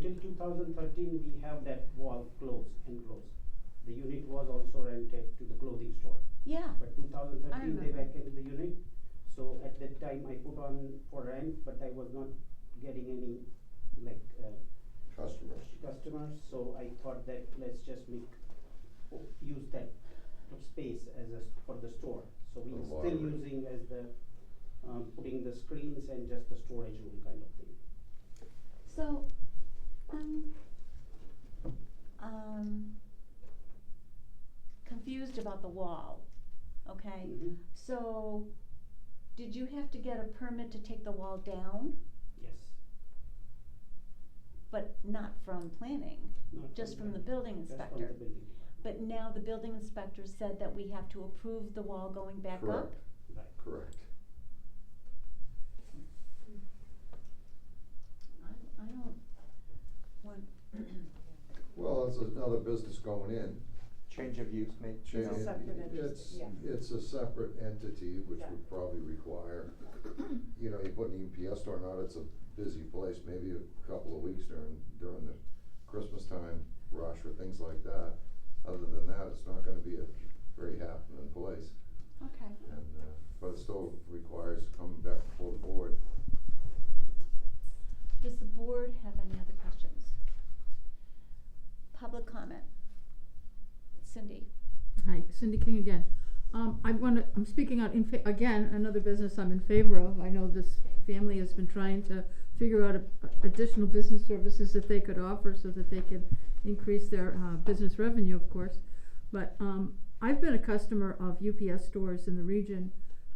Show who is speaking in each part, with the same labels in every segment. Speaker 1: till two thousand thirteen, we have that wall closed and closed. The unit was also rented to the clothing store,
Speaker 2: Yeah,
Speaker 1: but two thousand thirteen, they
Speaker 2: remember.
Speaker 1: vacated the unit. So at that time, I put on for rent, but I was not getting any, like, uh,
Speaker 3: customers.
Speaker 1: customers, so I thought that let's just make, o- use that space as a, s- for the store. So
Speaker 3: For
Speaker 1: we're still
Speaker 3: wiring.
Speaker 1: using as the, um, putting the screens and just the storage room kind of thing.
Speaker 2: so, um, um, confused about the wall, okay?
Speaker 1: Mhm.
Speaker 2: So, did you have to get a permit to take the wall down,
Speaker 1: Yes.
Speaker 2: but not from planning,
Speaker 1: Not
Speaker 2: just from the
Speaker 1: building.
Speaker 2: building
Speaker 1: Just from
Speaker 2: inspector?
Speaker 1: the building.
Speaker 2: But now the building inspector said that we have to approve the wall going back up?
Speaker 3: Correct,
Speaker 1: Right.
Speaker 3: correct.
Speaker 2: I, I don't want,
Speaker 3: Well, it's another business going in.
Speaker 4: Change of use, make.
Speaker 3: Cha-
Speaker 5: It's a separate entity,
Speaker 3: it's-
Speaker 5: yeah.
Speaker 3: It's a separate entity, which
Speaker 5: Yeah.
Speaker 3: would probably require, you know, you put an EMPS store on, it's a busy place, maybe a couple of weeks during, during the Christmas time rush or things like that. Other than that, it's not gonna be a very happening place.
Speaker 2: okay,
Speaker 3: And, uh, but it still requires coming back before the board.
Speaker 2: does the board have any other questions? Public comment? Cindy?
Speaker 6: Hi, Cindy King again. Um, I wanna, I'm speaking out in fa- again, another business I'm in favor of. I know this family has been trying to figure out a- additional business services that they could offer so that they can increase their, uh, business revenue, of course. But, um, I've been a customer of UPS stores in the region,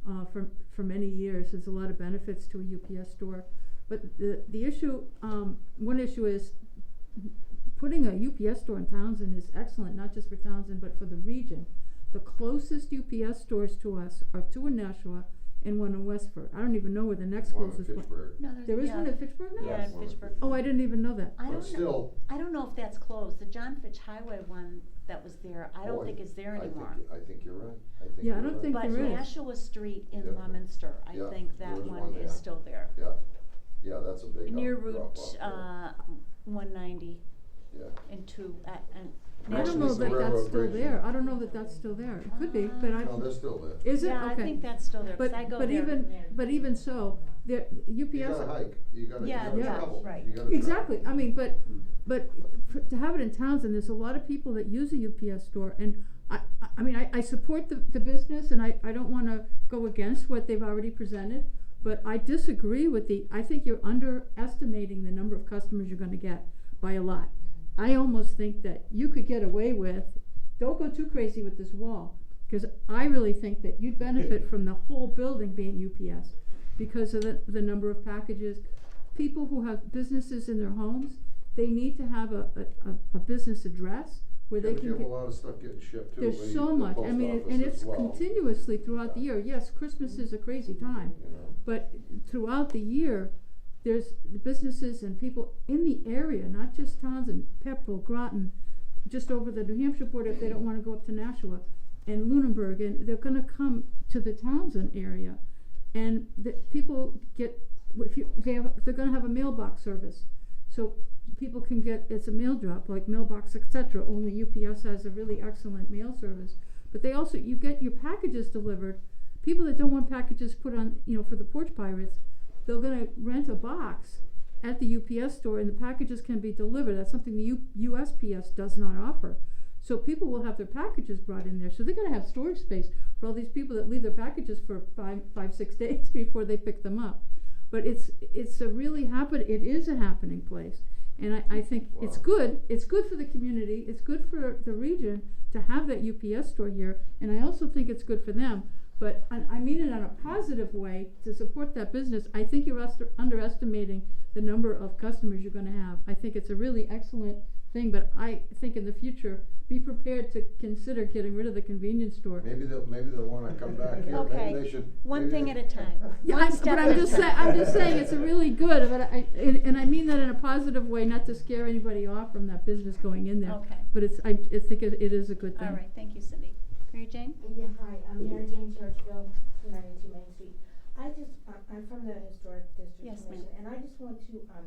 Speaker 6: uh, for, for many years. There's a lot of benefits to a UPS store. But the, the issue, um, one issue is putting a UPS store in Townsend is excellent, not just for Townsend, but for the region. The closest UPS stores to us are two in Nashua and one in Westford. I don't even know where the next
Speaker 3: One in
Speaker 6: closest one.
Speaker 3: Fitchburg.
Speaker 2: No, there's.
Speaker 6: There is
Speaker 2: yeah.
Speaker 6: one in Fitchburg now?
Speaker 2: Yeah,
Speaker 3: Yes,
Speaker 2: in
Speaker 3: one in
Speaker 2: Fitchburg.
Speaker 3: Fitchburg.
Speaker 6: Oh, I didn't even know that.
Speaker 2: I
Speaker 3: But
Speaker 2: don't know,
Speaker 3: still,
Speaker 2: I don't know if that's closed, the John Fitch Highway one that was there, I
Speaker 3: Oh,
Speaker 2: don't think is there
Speaker 3: I think
Speaker 2: anymore.
Speaker 3: y- I think you're right, I think
Speaker 6: Yeah, I
Speaker 3: you're
Speaker 6: don't
Speaker 3: right.
Speaker 6: think there
Speaker 2: But
Speaker 6: is.
Speaker 2: Nashua Street in
Speaker 3: Yeah.
Speaker 2: Leominster, I
Speaker 3: Yeah,
Speaker 2: think
Speaker 3: there
Speaker 2: that
Speaker 3: is
Speaker 2: one
Speaker 3: one
Speaker 2: is
Speaker 3: there.
Speaker 2: still there.
Speaker 3: Yeah, yeah, that's a big uh,
Speaker 2: Near
Speaker 3: up- drop
Speaker 2: Route,
Speaker 3: off there.
Speaker 2: uh, one ninety
Speaker 3: Yeah,
Speaker 2: and two, uh, and
Speaker 3: Yeah,
Speaker 2: Nashua
Speaker 6: I don't
Speaker 3: actually
Speaker 6: know
Speaker 3: it's the
Speaker 6: that that's
Speaker 3: railroad
Speaker 6: still
Speaker 3: bridge.
Speaker 6: there. I don't know that that's still there. It could be, but I,
Speaker 3: no, they're still there.
Speaker 6: is it? Okay.
Speaker 2: Uh, Yeah, I think that's still there, 'cause
Speaker 6: But,
Speaker 2: I go there.
Speaker 6: but even, but even so, there, UPS.
Speaker 3: You gotta hike, you gotta, you
Speaker 2: Yeah,
Speaker 3: gotta
Speaker 6: yeah,
Speaker 3: travel,
Speaker 2: right.
Speaker 3: you gotta travel.
Speaker 6: Exactly, I mean, but, but for- to have it in Townsend, there's a lot of people that use a UPS store, and I, I, I mean, I, I support the, the business, and I, I don't wanna go against what they've already presented, but I disagree with the, I think you're underestimating the number of customers you're gonna get by a lot. I almost think that you could get away with, don't go too crazy with this wall, cause I really think that you'd benefit from the whole building being UPS because of the, the number of packages. People who have businesses in their homes, they need to have a, a- a, a business address where they
Speaker 3: Yeah, but
Speaker 6: can
Speaker 3: you
Speaker 6: get.
Speaker 3: have a lot of stuff getting shipped too,
Speaker 6: There's
Speaker 3: leave
Speaker 6: so
Speaker 3: the
Speaker 6: much,
Speaker 3: post
Speaker 6: I mean, it-
Speaker 3: office
Speaker 6: and
Speaker 3: as
Speaker 6: it's
Speaker 3: well,
Speaker 6: continuously throughout the year, yes, Christmas is a crazy time,
Speaker 3: You know,
Speaker 6: but throughout the year, there's the businesses and people in the area, not just Townsend, Pepperell, Groton, just over the New Hampshire border if they don't wanna go up to Nashua, and Lunenburg, and they're gonna come to the Townsend area. And the, people get, if you, they have, they're gonna have a mailbox service, so people can get, it's a mail drop, like mailbox, et cetera, only UPS has a really excellent mail service. But they also, you get your packages delivered, people that don't want packages put on, you know, for the porch pirates, they're gonna rent a box at the UPS store and the packages can be delivered, that's something the U- USPS does not offer. So people will have their packages brought in there, so they're gonna have storage space for all these people that leave their packages for five, five, six days before they pick them up. But it's, it's a really happen, it is a happening place, and I, I think it's
Speaker 3: Wow.
Speaker 6: good, it's good for the community, it's good for the region to have that UPS store here, and I also think it's good for them, but I, I mean it in a positive way to support that business. I think you're ester- underestimating the number of customers you're gonna have. I think it's a really excellent thing, but I think in the future, be prepared to consider getting rid of the convenience store.
Speaker 3: Maybe they'll, maybe they'll wanna come back here,
Speaker 2: Okay,
Speaker 3: maybe they should.
Speaker 2: one
Speaker 3: maybe
Speaker 2: thing
Speaker 3: they-
Speaker 2: at a time.
Speaker 6: Yeah,
Speaker 2: One
Speaker 6: I'm,
Speaker 2: step at
Speaker 6: but I'm
Speaker 2: a
Speaker 6: just
Speaker 2: time.
Speaker 6: saying, I'm just saying, it's a really good, but I, and, and I mean that in a positive way, not to scare anybody off from that business going in there.
Speaker 2: Okay.
Speaker 6: But it's, I, I think it, it is a good thing.
Speaker 2: All right, thank you, Cindy. Mary Jane?
Speaker 5: Uh, Yeah, hi, I'm Mary Jane Churchville, two ninety-two Main Street. I just, I- I'm from the Historic District
Speaker 2: Yes,
Speaker 5: Commission, and I just want to, um,